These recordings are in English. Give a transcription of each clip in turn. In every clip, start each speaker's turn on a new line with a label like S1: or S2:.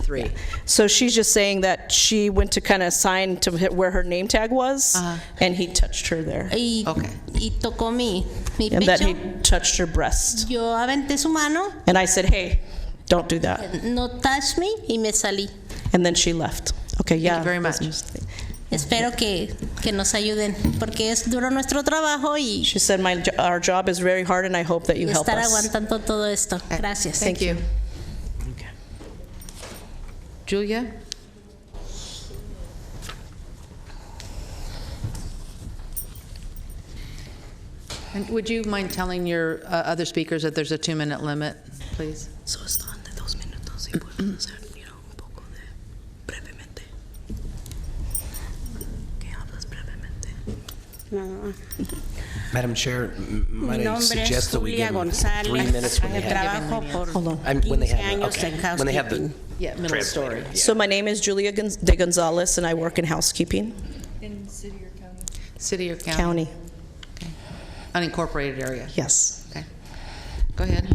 S1: three.
S2: So she's just saying that she went to kind of sign to hit where her name tag was, and he touched her there.
S3: y,
S1: Okay.
S3: y tocó mi, mi
S2: And that
S3: pecho.
S2: he touched her breast.
S3: Yo aventé su mano,
S2: And I said, hey, don't do that.
S3: no touch me y me salí.
S2: And then she left. Okay, yeah.
S1: very
S2: that's
S1: much.
S2: just-
S3: Espero que, que nos ayuden porque es duro nuestro trabajo y
S2: She said, my, jo- our job is very hard, and I hope that you help
S3: estar
S2: us.
S3: aguantando todo esto. Gracias.
S1: Thank you. Okay. Julia? And would you mind telling your uh, other speakers that there's a two-minute limit, please?
S4: Solo estaban de dos minutos y pueden hacer you know, un poco de brevemente. ¿Qué hablas brevemente?
S5: Madam Chair, m-
S6: Mi
S5: might I
S6: nombre
S5: suggest
S6: es
S5: that we
S6: Julia
S5: give them three minutes
S6: González.
S5: when they have,
S6: Trabajo
S2: Hold on.
S6: por
S5: I'm- when they have,
S6: 15
S5: the-
S6: años en
S5: okay, when they have the
S6: housekeeping.
S1: Yeah, middle story.
S2: So my name is Julia Gonz- de Gonzalez, and I work in housekeeping,
S1: City or county?
S2: county.
S1: Unincorporated area.
S2: Yes.
S1: Okay. Go ahead.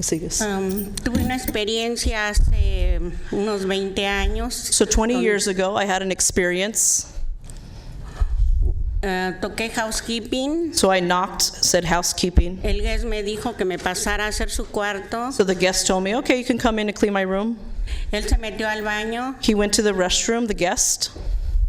S2: Sigues.
S6: Um, tuve una experiencia hace unos 20 años.
S2: So
S6: Um,
S2: 20 years ago, I had an experience.
S6: Eh, toqué housekeeping.
S2: So I knocked, said housekeeping.
S6: El guest me dijo que me pasara a hacer su cuarto.
S2: So the guest told me, okay, you can come in and clean my room.
S6: Él se metió al baño
S2: He went to the restroom, the guest.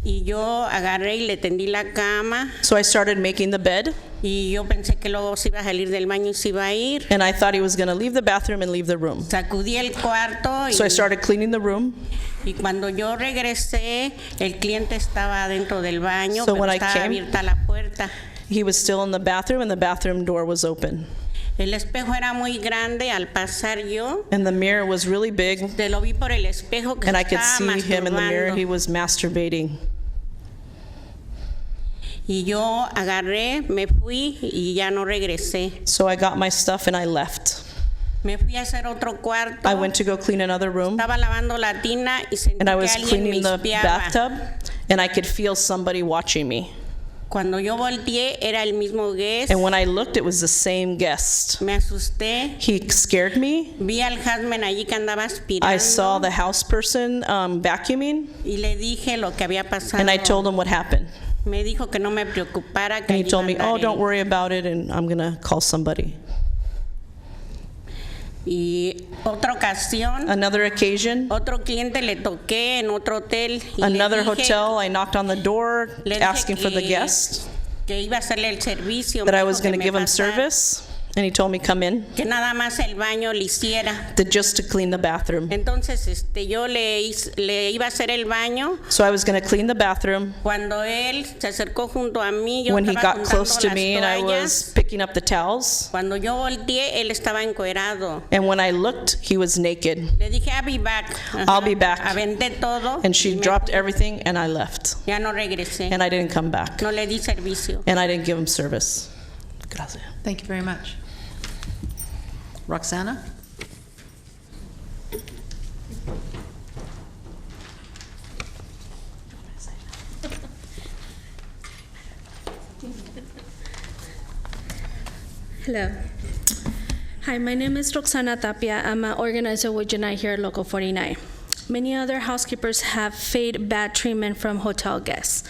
S6: y yo agarré y le tendí la cama.
S2: So I started making the bed,
S6: Y yo pensé que luego se iba a salir del baño y se iba a ir.
S2: and I thought he was going to leave the bathroom and leave the room.
S6: Sacudí el cuarto y,
S2: So I started cleaning the room.
S6: y cuando yo regresé, el cliente estaba dentro del baño,
S2: So
S6: pero
S2: when I
S6: estaba
S2: came-
S6: abierta la puerta.
S2: He was still in the bathroom, and the bathroom door was open.
S6: El espejo era muy grande al pasar yo.
S2: And the mirror was really big,
S6: Te lo vi por el espejo que
S2: and I could
S6: estaba
S2: see him in the mirror. He
S6: Ah, masturbando.
S2: was masturbating.
S6: Y yo agarré, me fui y ya no regresé.
S2: So I got my stuff and I left.
S6: Me fui a hacer otro cuarto.
S2: I went to go clean another room,
S6: Estaba lavando la tina y sentí
S2: and I
S6: que
S2: was
S6: alguien me
S2: cleaning the
S6: espiaba.
S2: bathtub, and I could feel somebody watching me.
S6: Cuando yo volteé era el mismo guest.
S2: And when I looked, it was the same guest.
S6: Me asusté.
S2: He scared me.
S6: Vi al Hasman allí que andaba aspirando
S2: I saw the house person um, vacuuming,
S6: y le dije lo que había pasado.
S2: and I told him what happened.
S6: me dijo que no me preocupara, que
S2: And he
S6: ahí
S2: told me,
S6: iba a andar
S2: "Oh, don't
S6: él".
S2: worry about it, and I'm gonna call somebody."
S6: Y otra ocasión,
S2: Another occasion,
S6: otro cliente le toqué en otro hotel y le
S2: another
S6: dije-
S2: hotel. I knocked on the door,
S6: le dije
S2: asking for the
S6: que-
S2: guest.
S6: que iba a hacerle el servicio,
S2: that
S6: me
S2: I
S6: dijo
S2: was
S6: que
S2: going to
S6: me
S2: give him
S6: pasara,
S2: service, and he told me come in,
S6: que nada más el baño le hiciera.
S2: that just to clean the bathroom.
S6: Entonces, este, yo le, hice- le iba a hacer el baño.
S2: So I was going to clean the bathroom
S6: Cuando él se acercó junto a mí, yo
S2: when he
S6: estaba
S2: got
S6: juntando
S2: close to
S6: las
S2: me, and I
S6: toallas.
S2: was picking up the towels.
S6: Cuando yo volteé, él estaba encuerado.
S2: And when I looked, he was naked,
S6: Le dije, I'll be back.
S2: I'll be back.
S6: Aventé todo.
S2: and
S6: y
S2: she
S6: me-
S2: dropped everything, and I left,
S6: Ya no regresé.
S2: and I didn't come back,
S6: no le di servicio.
S2: and I didn't give him service. Gracias.
S1: Thank you very much. Roxana?
S4: Hello. Hi, my name is Roxana Tapia. I'm an organizer with Unite here at Local 49. Many other housekeepers have faced bad treatment from hotel guests,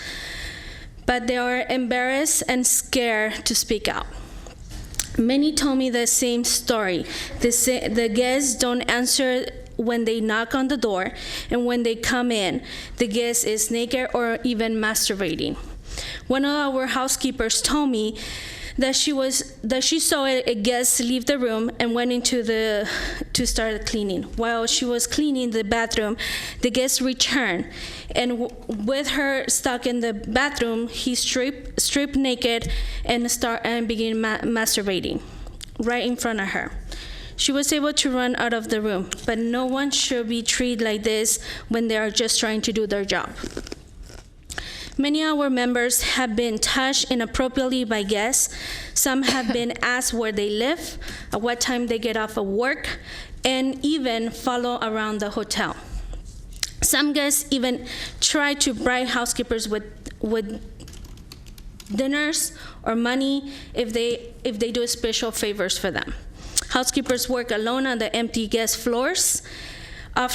S4: but they are embarrassed and scared to speak out. Many told me the same story. The, sa- the guests don't answer when they knock on the door, and when they come in, the guest is naked or even masturbating. One of our housekeepers told me that she was that she saw a a guest leave the room and went into the to start cleaning. While she was cleaning the bathroom, the guest returned, and w- with her stuck in the bathroom, he stripped stripped naked and start and began ma- masturbating right in front of her. She was able to run out of the room, but no one should be treated like this when they are just trying to do their job. Many of our members have been touched inappropriately by guests. Some have been asked where they live, at what time they get off of work, and even follow around the hotel. Some guests even try to bribe housekeepers with, with dinners or money if they if they do special favors for them. Housekeepers work alone on the empty guest floors,